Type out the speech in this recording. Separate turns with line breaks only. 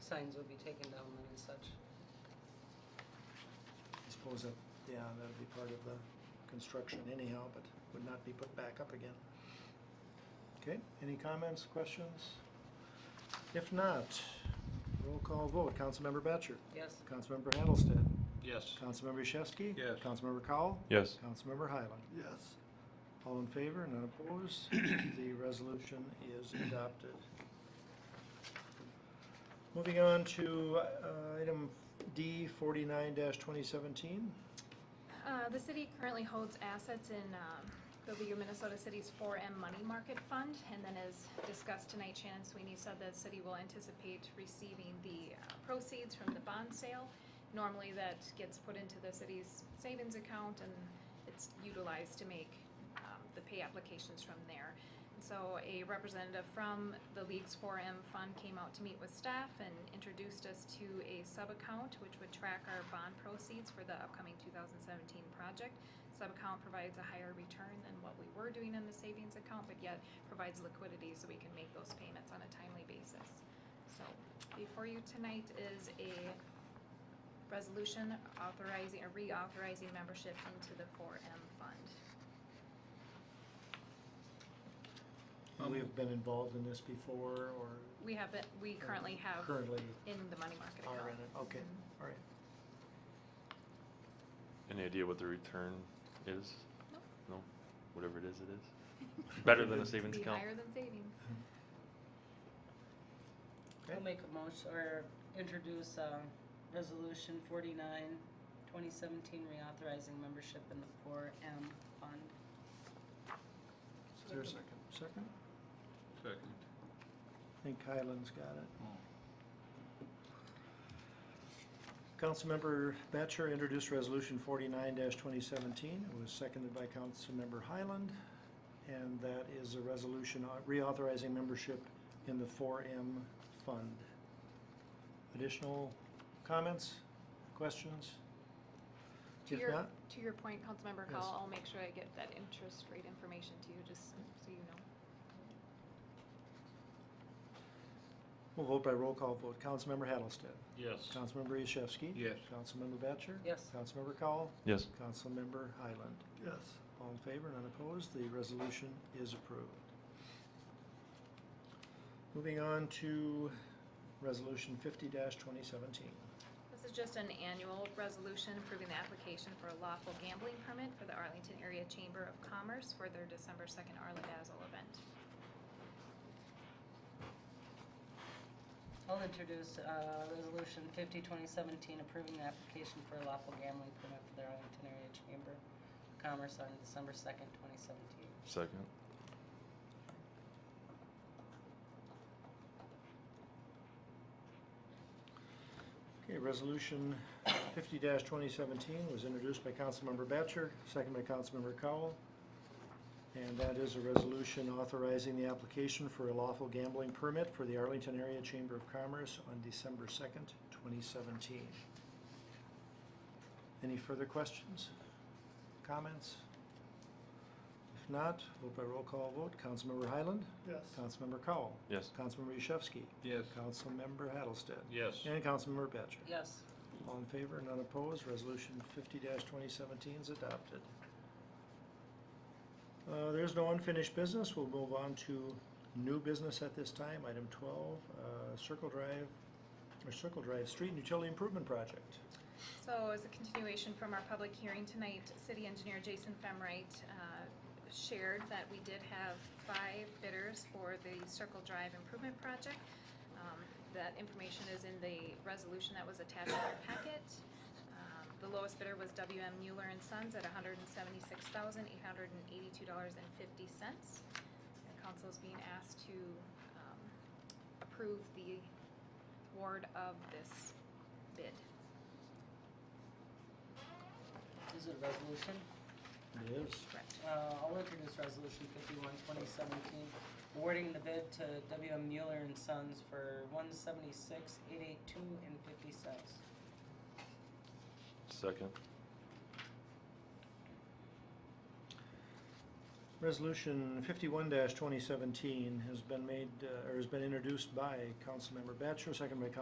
signs would be taken down then and such.
I suppose that, yeah, that'd be part of the construction anyhow, but would not be put back up again. Okay, any comments, questions? If not, roll call vote. Councilmember Batchor.
Yes,
Councilmember Hattlestead.
Yes.
Councilmember Yashewski.
Yes.
Councilmember Cowell.
Yes.
Councilmember Highland. Yes. All in favor, none opposed, the resolution is adopted. Moving on to uh, item D forty-nine twenty seventeen.
Uh, The city currently holds assets in um, the League of Minnesota Cities 4M Money Market Fund, and then as discussed tonight, Shannon Sweeney said the city will anticipate receiving the uh, proceeds from the bond sale. Normally, that gets put into the city's savings account, and it's utilized to make um, the pay applications from there. And So a representative from the League's 4M Fund came out to meet with staff and introduced us to a sub-account which would track our bond proceeds for the upcoming 2017 project. Sub-account provides a higher return than what we were doing in the savings account, but yet provides liquidity so we can make those payments on a timely basis. So before you tonight is a resolution authorizing, or reauthorizing membership into the 4M Fund.
Um,
We have been involved in this before or
We have, it- we currently have
currently
in the money market account.
are in it? Okay, all right.
Any idea what the return is?
Nope.
No? Whatever it is, it is. Better than a savings
Be
account?
higher than savings.
Okay.
Mm-hmm.
I'll make a motion or introduce, um, resolution forty-nine, twenty seventeen, reauthorizing membership in the four M fund.
Is there a second? Second?
Second.
I think Highland's got it. Councilmember Batchor introduced resolution forty-nine twenty seventeen. It was seconded by Councilmember Highland. And that is a resolution au- reauthorizing membership in the four M fund. Additional comments, questions?
To
If
your,
not-
to your point, Councilmember
Yes.
Cowell, I'll make sure I get that interest rate information to you, just so you know.
We'll vote by roll call vote. Councilmember Hattlestead.
Yes.
Councilmember Yashewski.
Yes.
Councilmember Batchor.
Yes.
Councilmember Cowell.
Yes.
Councilmember Highland. Yes. All in favor, none opposed, the resolution is approved. Moving on to resolution fifty twenty seventeen.
This is just an annual resolution approving the application for a lawful gambling permit for the Arlington Area Chamber of Commerce for their December second Arladazzle event.
I'll introduce, uh, resolution fifty, twenty seventeen, approving the application for a lawful gambling permit for the Arlington Area Chamber of Commerce on December second, twenty seventeen.
Second?
Okay, resolution fifty twenty seventeen was introduced by Councilmember Batchor, second by Councilmember Cowell. And that is a resolution authorizing the application for a lawful gambling permit for the Arlington Area Chamber of Commerce on December second, twenty seventeen. Any further questions, comments? If not, vote by roll call vote. Councilmember Highland.
Yes.
Councilmember Cowell.
Yes.
Councilmember Yashewski.
Yes.
Councilmember Hattlestead.
Yes.
And Councilmember Batchor.
Yes,
All in favor, none opposed, resolution fifty twenty seventeen is adopted. Uh, there's no unfinished business, we'll move on to new business at this time, item twelve, uh, Circle Drive, or Circle Drive Street and Utility Improvement Project.
So as a continuation from our public hearing tonight, city engineer Jason Femright uh, shared that we did have five bidders for the Circle Drive Improvement Project. Um, That information is in the resolution that was attached to our packet. Um, The lowest bidder was WM Mueller and Sons at hundred and seventy-six thousand, eight hundred and eighty-two dollars and fifty cents. The council is being asked to um, approve the award of this bid.
is it a resolution?
It is.
Correct.
Uh, I'll introduce resolution fifty-one, twenty seventeen, awarding the bid to W M Mueller and Sons for one seventy-six, eight eight two and fifty cents.
Second?
Resolution fifty-one twenty seventeen has been made, uh, or has been introduced by Councilmember Batchor, second by